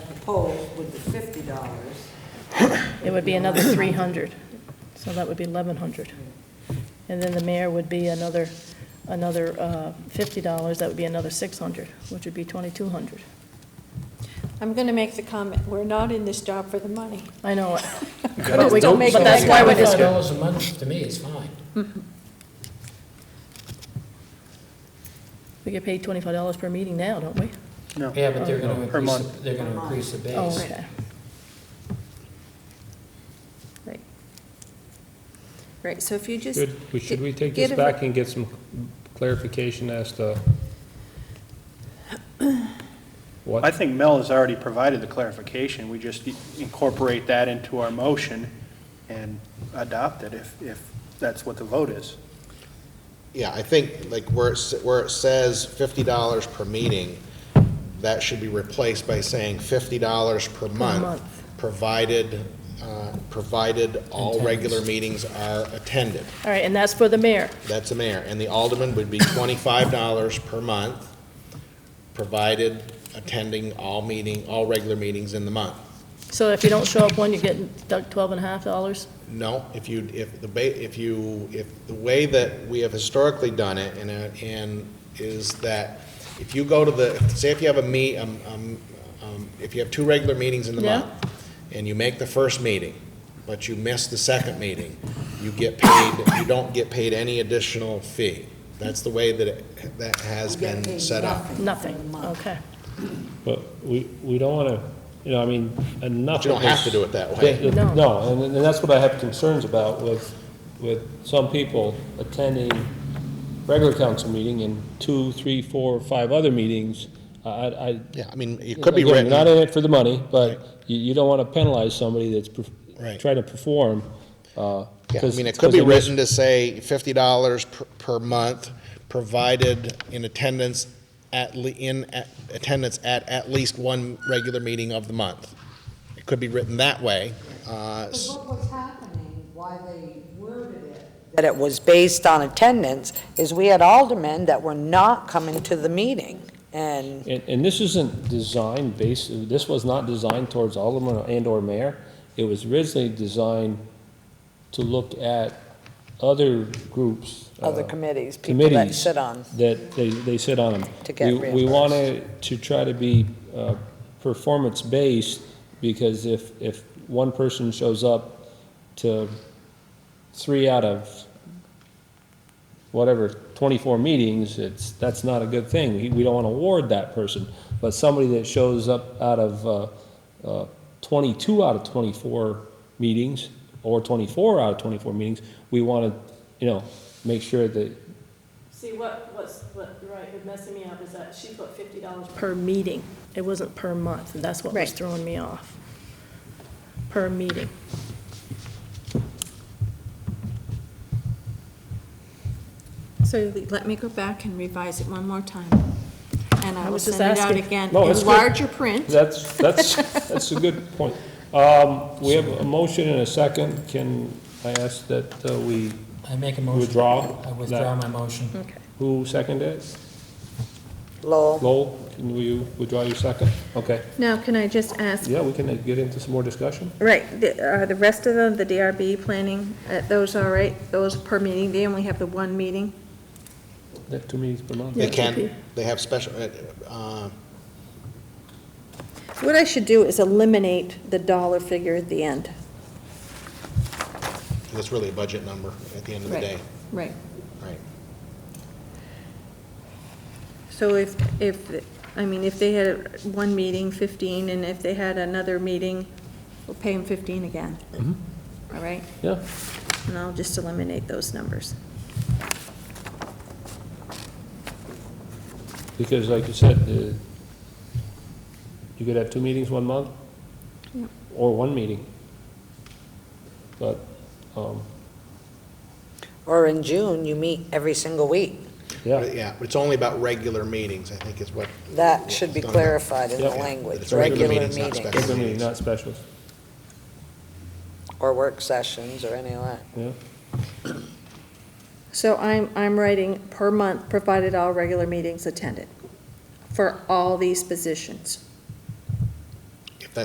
whole with the fifty dollars. It would be another 300, so that would be 1,100. And then the mayor would be another, another uh, $50, that would be another 600, which would be 2,200. I'm going to make the comment, we're not in this job for the money. I know, it. But we don't make but that's that why we're comment. just, Five dollars a month, to me, is fine. we get paid $25 per meeting now, don't we? No. Yeah, but they're gonna Per increase, month. the- they're Per gonna month. increase the Oh, base. okay. Right. Right, so if you just. Good, we- should we take get this a- back and get some clarification as to I what? think Mel has already provided the clarification. We just incorporate that into our motion and adopt it if, if that's what the vote is. Yeah, I think, like, where it, s- where it says fifty dollars per meeting, that should be replaced by saying fifty dollars per month, month. provided, uh, provided all Attendance. regular meetings are attended. All right, and that's for the mayor. That's the mayor. And the alderman would be twenty-five dollars per month, provided attending all meeting, all regular meetings in the month. So if you don't show up one, you get docked twelve and a half dollars? No, if you, if the, ba if you, if the way that we have historically done it, and, uh, and is that if you go to the, say if you have a meet, um, um, um, if you have two regular meetings in the Yeah. month, and you make the first meeting, but you miss the second meeting, you get paid, you don't get paid any additional fee. That's the way that it, that has been set up. Nothing, okay. But we, we don't want to, you know, I mean, enough. But you don't of this- have to do it that Yeah, way. yeah, No. No, and, and that's what I have concerns about with, with some people attending regular council meeting and two, three, four, five other meetings. I, I. I- Yeah, I mean, it could be Again, written. You're not in it for the money, but you, you don't want to penalize somebody that's perf- Right. trying to perform. uh, Yeah, I 'cause- mean, it 'cause could be is- written to say fifty dollars per month, provided in attendance at, le- in at- attendance at at least one regular meeting of the month. It could be written that way. uh, But s- what was happening, why they worded it. That it was based on attendance, is we had aldermen that were not coming to the meeting, and And, and this isn't designed based, this was not designed towards alderman and/or mayor. It was originally designed to look at other groups. uh, other committees, people that committees sit on. That they, they sit on them. To get We reimbursed. want to, to try to be uh, performance-based, because if, if one person shows up to three out of whatever, 24 meetings, it's, that's not a good thing. We- We don't want to award that person. But somebody that shows up out of uh, uh, 22 out of 24 meetings, or 24 out of 24 meetings, we want to, you know, make sure that See, what, what's, what, right, was messing me up is that she put fifty dollars. Per meeting, it wasn't per month, and that's what was Right. throwing me off. Per meeting. So let me go back and revise it one more time. And I I will was just send it out asking. again No, that's in good. larger print. That's, that's, that's a good point. Um, we have a motion and a second. Can I ask that uh, we, I make a motion. Withdraw I withdraw my motion. Okay. who seconded it? Lowell, Lowell, can you withdraw your second? Okay. Now, can I just ask, Yeah, we can uh, get into some more discussion. right, the- are the rest of them, the DRB planning, uh, those all right? Those per meeting, they only have the one meeting? That two meetings per month. They it could can, be. they have special, uh, uh, What I should do is eliminate the dollar figure at the end. that's really a budget number at the end of the Right. day. Right. Right. So if, if, I mean, if they had one meeting, 15, and if they had another meeting, we'll pay them 15 again. All right? Yeah, And I'll just eliminate those numbers. because like you said, the, you could have two meetings one month Yeah. or one meeting. But, um, or in June, you meet every single week. yeah, But yeah, but it's only about regular meetings, I think is what. That should be It's not about- clarified in the Yep. language, It's regular regular meetings, not meetings, special. regular meeting, not specials, or work sessions, or any of that. yeah. So I'm, I'm writing per month, provided all regular meetings attended, for all these positions.